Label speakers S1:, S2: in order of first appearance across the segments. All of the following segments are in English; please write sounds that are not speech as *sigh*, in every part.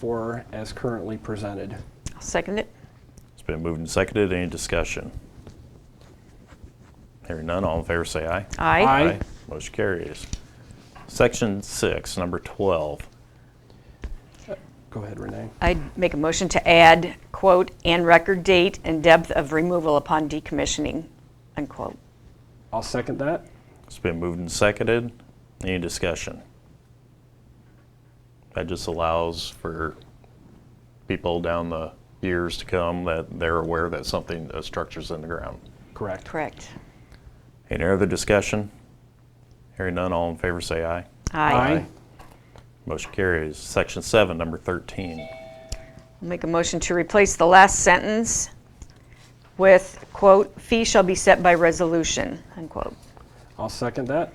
S1: for as currently presented.
S2: I'll second it.
S3: It's been moved and seconded. Any discussion? Hearing none, all in favor say aye.
S2: Aye.
S1: Aye.
S3: Motion carries. Section six, number 12.
S1: Go ahead, Renee.
S2: I'd make a motion to add, quote, "and record date and depth of removal upon decommissioning," unquote.
S1: I'll second that.
S3: It's been moved and seconded. Any discussion? That just allows for people down the years to come that they're aware that something, a structure's in the ground.
S1: Correct.
S2: Correct.
S3: Any other discussion? Hearing none, all in favor say aye.
S2: Aye.
S3: Motion carries. Section seven, number 13.
S2: I'll Make a motion to replace the last sentence with, quote, "Fee shall be set by resolution," unquote.
S1: I'll second that.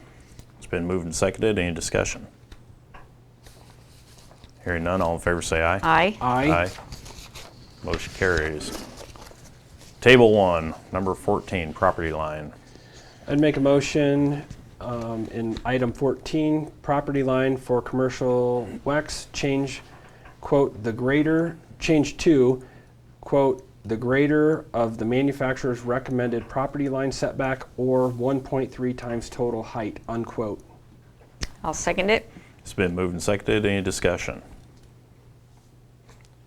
S3: It's been moved and seconded. Any discussion? Hearing none, all in favor say aye.
S2: Aye.
S1: Aye.
S3: Motion carries. Table one, number 14, property line.
S1: I'd make a motion um, in item 14, property line for commercial wax, change, quote, "the greater," change to, quote, "the greater of the manufacturer's recommended property line setback or 1.3 times total height," unquote.
S2: I'll second it.
S3: It's been moved and seconded. Any discussion?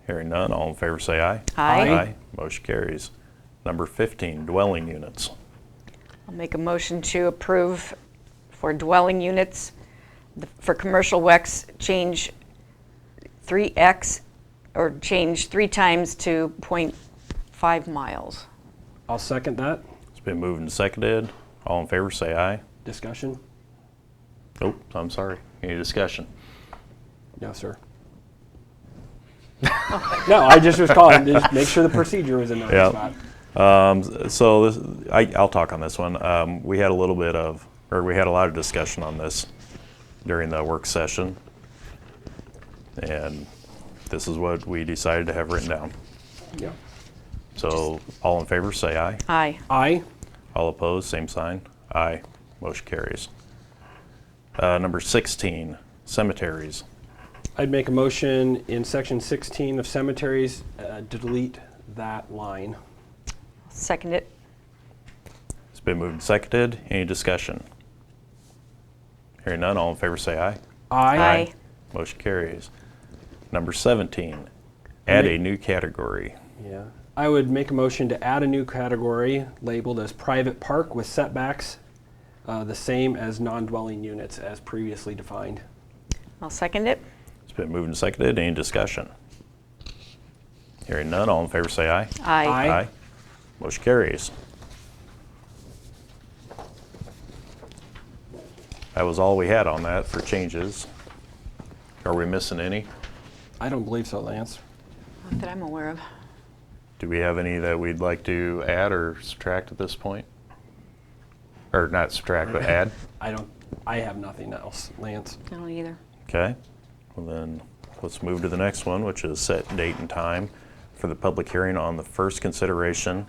S3: Hearing none, all in favor say aye.
S2: Aye.
S1: Aye.
S3: Motion carries. Number 15, dwelling units.
S2: I'll make a motion to approve for dwelling units, the- for commercial wex, change 3X, or change three times to .5 miles.
S1: I'll second that.
S3: It's been moved and seconded. All in favor say aye.
S1: Discussion?
S3: Nope, I'm sorry. Any discussion?
S1: No, sir. *laughs* No, I just was calling, to make sure the procedure was in the
S3: Yeah.
S1: right spot.
S3: So this, I, I'll talk on this one. Um, we had a little bit of, or we had a lot of discussion on this during the work session. And this is what we decided to have written down.
S1: Yeah.
S3: So all in favor, say aye.
S2: Aye.
S1: Aye.
S3: All opposed, same sign. Aye. Motion carries. Uh, number 16, cemeteries.
S1: I'd make a motion in section 16 of cemeteries, uh, delete that line.
S2: Second it.
S3: It's been moved and seconded. Any discussion? Hearing none, all in favor, say aye.
S2: Aye.
S3: Motion carries. Number 17, add a new category.
S1: Yeah. I would make a motion to add a new category labeled as private park with setbacks uh, the same as non-dwelling units as previously defined.
S2: I'll second it.
S3: It's been moved and seconded. Any discussion? Hearing none, all in favor say aye.
S1: Aye.
S2: Aye.
S3: Motion carries. That was all we had on that for changes. Are we missing any?
S1: I don't believe so, Lance.
S2: Not that I'm aware of.
S3: Do we have any that we'd like to add or subtract at this point? Or not subtract, but add?
S1: I don't, I have nothing else, Lance.
S2: I don't either.
S3: Okay, well then, let's move to the next one, which is set date and time for the public hearing on the first consideration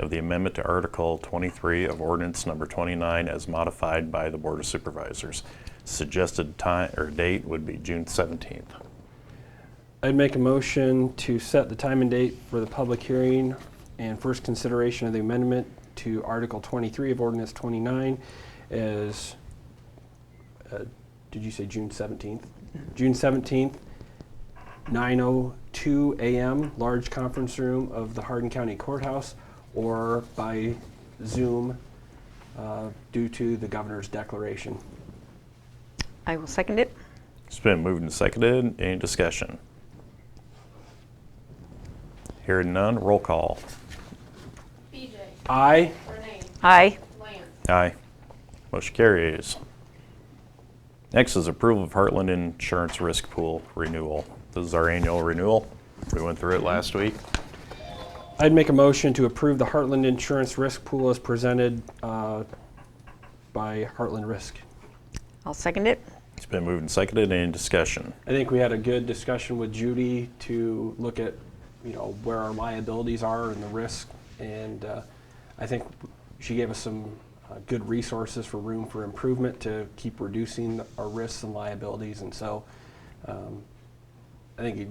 S3: of the amendment to Article 23 of ordinance number 29 as modified by the Board of Supervisors. Suggested time, or date would be June 17th.
S1: I'd make a motion to set the time and date for the public hearing and first consideration of the amendment to Article 23 of Ordinance 29 as, uh, did you say June 17th? June oh 17th, 9:02 a.m., large conference room of the Hardin County Courthouse, or by Zoom uh, due to the governor's declaration.
S2: I will second it.
S3: It's been moved and seconded, any discussion? Hearing none, roll call.
S4: BJ,
S1: Aye.
S4: Renee,
S2: Aye.
S4: Lance.
S3: Aye. Motion carries. Next is approval of Heartland Insurance Risk Pool renewal. This is our annual renewal. We went through it last week.
S1: I'd make a motion to approve the Heartland Insurance Risk Pool as presented uh, by Heartland Risk.
S2: I'll second it.
S3: It's been moved and seconded. Any discussion?
S1: I think we had a good discussion with Judy to look at, you know, where our liabilities are and the risk. And uh, I think she gave us some uh, good resources for room for improvement to keep reducing our risks and liabilities. And so um, I think it